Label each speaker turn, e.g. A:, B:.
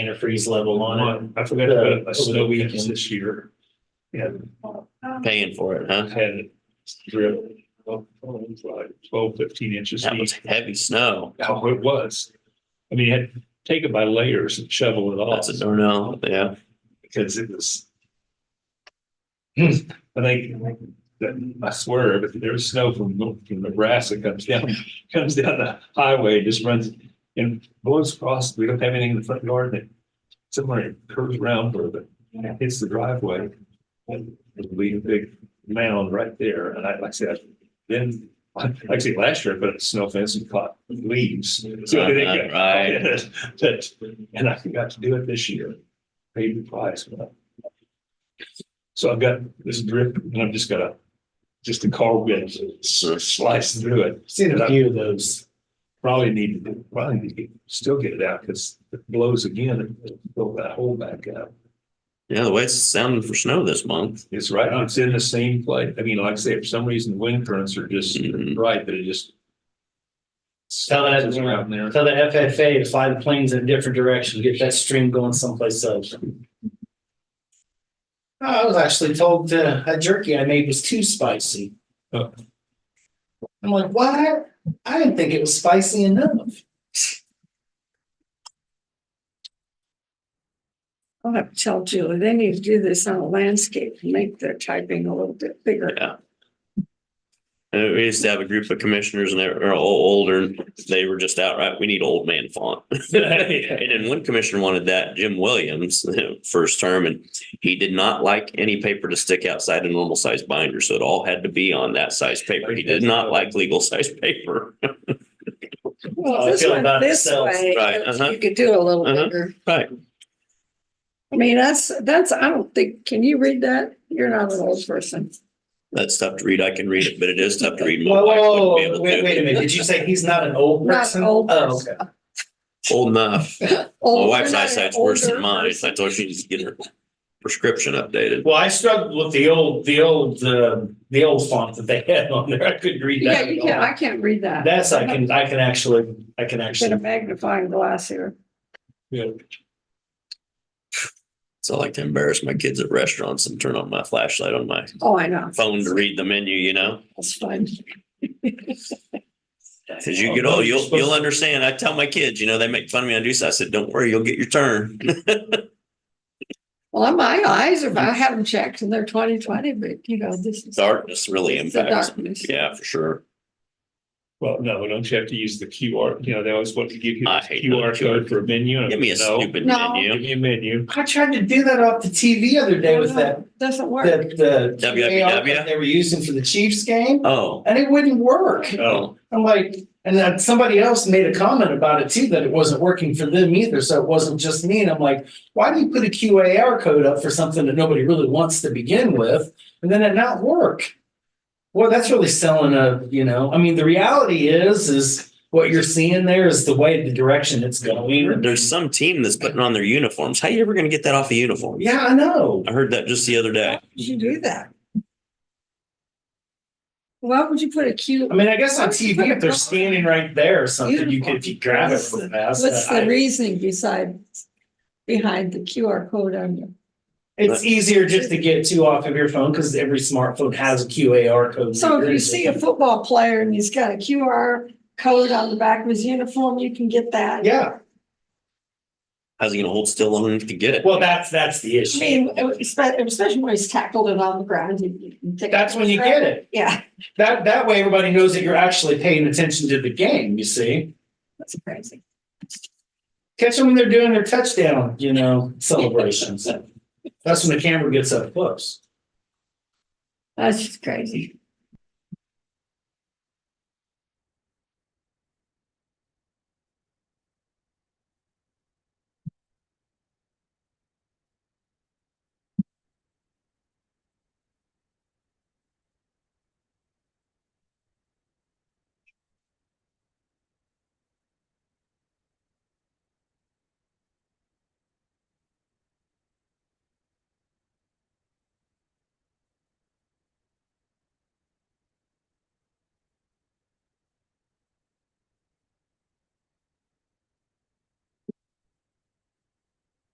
A: antifreeze level on
B: I forgot about
A: Uh,
B: a snow
A: over the
B: week
A: weekend.
B: this year. And
A: it, paying for it, huh?
B: had drip, well, like twelve, fifteen inches
A: That
B: deep.
A: was heavy snow.
B: How it was. I mean, you had to take it by layers and shovel it off
A: That's a no-no, yeah.
B: because it was. I think that I swear, but there was snow from from Nebraska comes down, comes down the highway, just runs and blows across. We don't have anything in the front yard and it somewhere curves around or the hits the driveway. And it'll leave a big mound right there. And I, like I said, then, like I said, last year, I put a snow fence and caught leaves.
C: Ah,
B: So they got-
A: Right.
B: That, and I forgot to do it this year. Paid the price. but- So I've got this drip and I've just got a, just a car whip slice through it.
A: Seen
B: a
A: few of those.
B: Probably need to, probably need to get- still get it out because it blows again and it'll fill that hole back up.
A: Yeah, the way it's sounding for snow this month.
B: It's right, it's in the same place. I mean, like I say, for some reason, wind currents are just
A: Mhm.
B: right, but it just.
C: Tell that-
B: It's around there.
C: Tell the FFA to fly the planes in a different direction, get that stream going someplace else. I was actually told that that jerky I made was too spicy.
B: Oh.
C: I'm like, what? I didn't think it was spicy enough.
D: I'll have to tell Julie, they need to do this on a landscape, and make their typing a little bit bigger.
A: Yeah. And we used to have a group of commissioners and they were all older and they were just outright, we need old man font. And then one commissioner wanted that, Jim Williams, first term, and he did not like any paper to stick outside a normal size binder. So it all had to be on that size paper. He did not like legal size paper.
C: Well,
D: Well,
C: I
D: this
C: feel
D: one,
C: Oh, about
D: this
C: itself,
D: way,
A: right, uh-huh.
D: you could do a little
A: Uh-huh.
D: bigger.
A: Right.
D: I mean, that's, that's, I don't think, can you read that? You're not an old person.
A: That's tough to read. I can read it, but it is tough to read. My
C: Whoa,
A: wife wouldn't
C: whoa,
A: be able
C: whoa,
A: to
C: wait,
A: do
C: wait a
A: it.
C: minute, did you say he's not an old
D: Not an
C: person?
D: old
C: Oh,
D: person.
C: okay.
A: Old enough. My
D: Old-
A: wife's
D: you're not an
A: eyesight's worse than
D: older
A: mine.
D: person.
A: I told her she needs to get her prescription updated.
C: Well, I struggled with the old, the old, uh, the old font that they had on there. I couldn't read
D: Yeah,
C: that.
D: you
C: at
D: can't,
C: all.
D: I can't read that.
C: That's, I can, I can actually, I can
D: Get a
C: actually,
D: magnifying glass here.
B: Yeah.
A: So I like to embarrass my kids at restaurants and turn on my flashlight on my
D: Oh, I know.
A: phone to read the menu, you know?
D: That's fun.
A: Cause you get old, you'll, you'll understand. I tell my kids, you know, they make fun of me. I do so. I said, don't worry, you'll get your turn.
D: Well, my eyes are, I have them checked and they're twenty twenty, but you know, this is.
A: Darkness really
D: It's the
A: impacts.
D: darkness.
A: Yeah, for sure.
B: Well, no, don't you have to use the QR, you know, they always want to give you
A: I
B: this
A: hate
B: QR
A: those
B: code for a menu.
A: Give me a
B: No,
A: stupid
D: No.
B: Give
A: menu.
B: me a menu.
C: I tried to do that off the TV other day with that,
D: Doesn't work.
C: that, the.
A: WWW?
C: AR that They were using for the Chiefs game
A: Oh,
C: and it wouldn't work.
A: oh,
C: I'm like, and then somebody else made a comment about it too, that it wasn't working for them either. So it wasn't just me. And I'm like, why do you put a QAR code up for something that nobody really wants to begin with and then it not work? Well, that's really selling a, you know, I mean, the reality is, is what you're seeing there is the way, the direction it's going.
A: there's some team that's putting on their uniforms. How you ever gonna get that off a uniform?
C: Yeah, I know.
A: I heard that just the other
D: Why
A: day.
D: would you do that? Why would you put a cute,
C: I mean, I guess on TV, if they're standing right there or something, you could, if you grab it real fast.
D: what's
C: I-
D: the reasoning beside, behind the QR code on you?
C: It's easier just to get to off of your phone because every smartphone has a QAR code.
D: So if
C: reader.
D: you see a football player and he's got a QR code on the back of his uniform, you can get that.
C: Yeah,
A: How's he gonna hold still long enough to get it?
C: well, that's, that's the
D: I
C: issue.
D: mean, especially, especially when he's tackled and on the ground. you can take-
C: That's when you get it.
D: Yeah,
C: That, that way everybody knows that you're actually paying attention to the game, you see?
D: that's crazy.
C: Catch them when they're doing their touchdown, you know, celebrations. That's when the camera gets up close.
D: That's just crazy.